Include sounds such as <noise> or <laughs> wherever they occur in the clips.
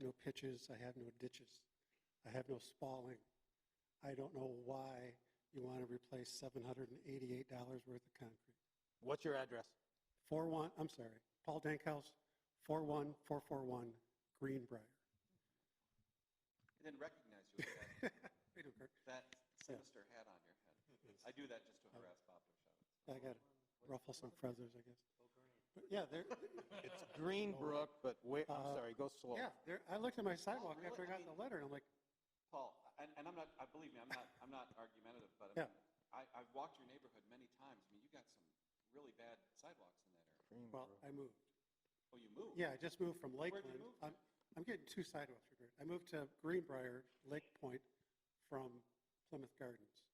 no pitches, I have no ditches, I have no spalling. I don't know why you want to replace $788 worth of concrete. What's your address? 41, I'm sorry, Paul Dankhouse, 41441 Greenbrier. <laughs> And then recognize you with that, We don't care. <laughs> that sinister hat on your head. I do that just to harass Bob Bishop. I got to ruffle some feathers, I guess. But yeah, there, It's Greenbrook, but where, I'm Uh, sorry, go slow. yeah, there, I looked at my sidewalk really? after I I got mean- the letter, and I'm like, <laughs> Paul, and, and I'm not, I believe me, I'm not, I'm not argumentative, but I Yeah. mean, I, I've walked your neighborhood many times. I mean, you got some really bad sidewalks in that area. well, I moved. Oh, you moved? Yeah, I just moved from Where'd you Lakeland. move to? I'm, I'm getting two sidewalks reversed. I moved to Greenbrier, Lake Point, from Plymouth Gardens.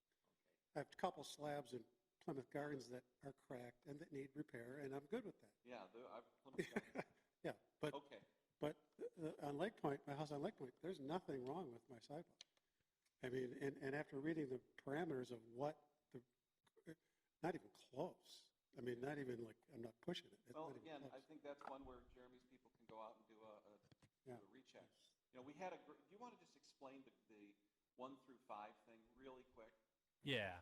I have a couple slabs in Plymouth Gardens that are cracked and that need repair, and I'm good with that. Yeah, the, I, Plymouth Gardens. <laughs> Yeah, but, okay. but the- on Lake Point, my house on Lake Point, there's nothing wrong with my sidewalk. I mean, and, and after reading the parameters of what the, uh, not even close. I mean, not even like, I'm not pushing it. It's Well, not even again, I close. think that's one where Jeremy's people can go out and do a, a, do Yeah. a recheck. You know, we had a, gr- do you want to just explain the, the one through five thing really quick? Yeah.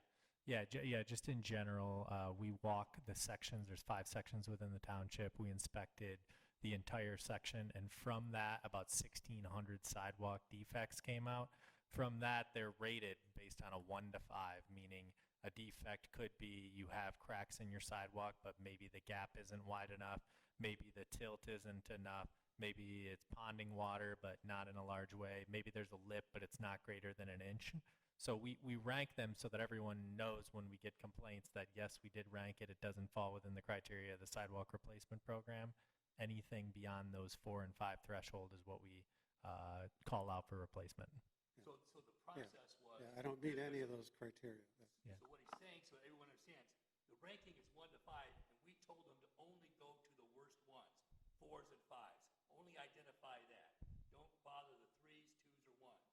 Yeah, ju- yeah, just in general, uh, we walk the sections. There's five sections within the township. We inspected the entire section, and from that, about 1,600 sidewalk defects came out. From that, they're rated based on a one to five, meaning a defect could be you have cracks in your sidewalk, but maybe the gap isn't wide enough, maybe the tilt isn't enough, maybe it's ponding water, but not in a large way, maybe there's a lip, but it's not greater than an inch. So we, we rank them so that everyone knows when we get complaints that yes, we did rank it. It doesn't fall within the criteria of the sidewalk replacement program. Anything beyond those four and five threshold is what we uh, call out for replacement. So, so the process uh, was. Yeah, I don't meet any of those criteria. That's- Yeah. So what he's saying, so everyone understands, the ranking is one to five, and we told them to only go to the worst ones, fours and fives. Only identify that. Don't bother the threes, twos, or ones.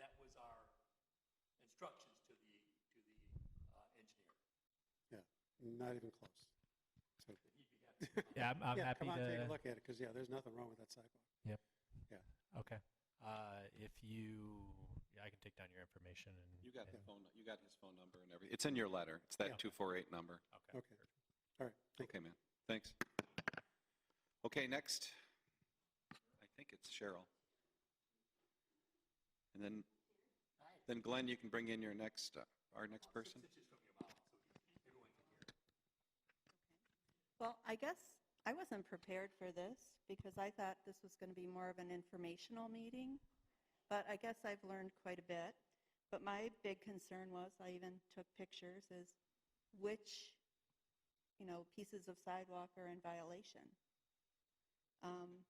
That was our instructions to the, to the uh, engineer. Not even close. So- He'd be happy to Yeah, I'm, I'm yeah, happy come on, to. take a look at it because yeah, there's nothing wrong with that sidewalk. Okay. Uh, if you, yeah, I can take down your information and. You got and- the phone, you got his phone number and everything. It's in your letter. It's Yeah. that 248 number. Okay. Okay. All right. Thank Okay, man. Thanks. Okay, next, I think it's Cheryl. And then, then Glenn, you can bring in your next, uh, our next person. Six inches from your mouth, so everyone can hear. Well, I guess I wasn't prepared for this because I thought this was going to be more of an informational meeting, but I guess I've learned quite a bit. But my big concern was, I even took pictures, is which, you know, pieces of sidewalk are in violation. Um,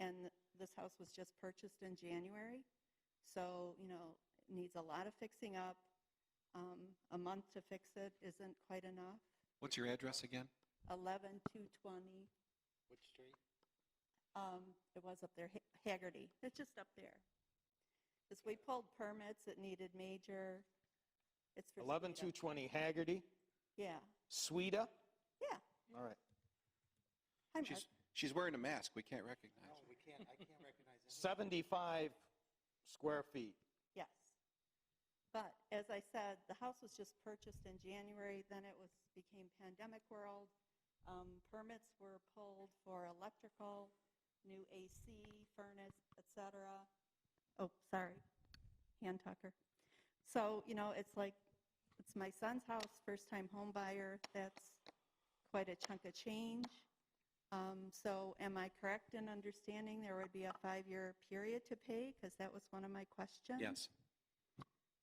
And this house was just purchased in January, so, you know, it needs a lot of fixing up. Um, A month to fix it isn't quite enough. What's your address again? 11 220. Which street? Um, it was up there, Ha- Haggerty. It's just up there. As we pulled permits, it needed major, it's for. Eleven two speed up. twenty Haggerty, Yeah, Sweda? yeah. All right. Hi, Mark. She's, she's wearing a mask. We can't recognize her. we can't, I can't recognize that. Seventy-five square feet. Yes. But as I said, the house was just purchased in January, then it was, became pandemic world. Um, Permits were pulled for electrical, new AC, furnace, et cetera. Oh, sorry, hand tucker. So, you know, it's like, it's my son's house, first-time home buyer, that's quite a chunk of change. Um, So am I correct in understanding there would be a five-year period to pay? Because that was one of my questions Yes.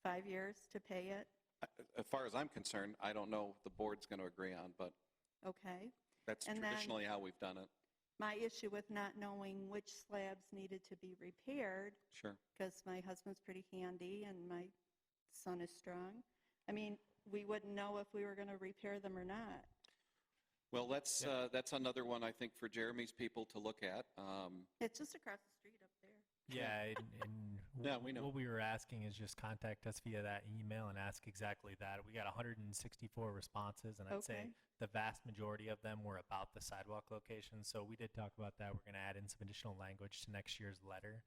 five years to pay it, A- As far as I'm concerned, I don't know what the board's going to agree on, but okay? that's And then- traditionally how we've done it. My issue with not knowing which slabs needed to be repaired, Sure. because my husband's pretty handy and my son is strong, I mean, we wouldn't know if we were going to repair them or not. Well, that's, uh, that's another one I think for Jeremy's people to look at. Um, It's just across the street up there. Yeah, and, and <laughs> Yeah, we know. what we were asking is just contact us via that email and ask exactly that. We got 164 responses, and I'd say Okay. the vast majority of them were about the sidewalk location. So we did talk about that. We're going to add in some additional language to next year's letter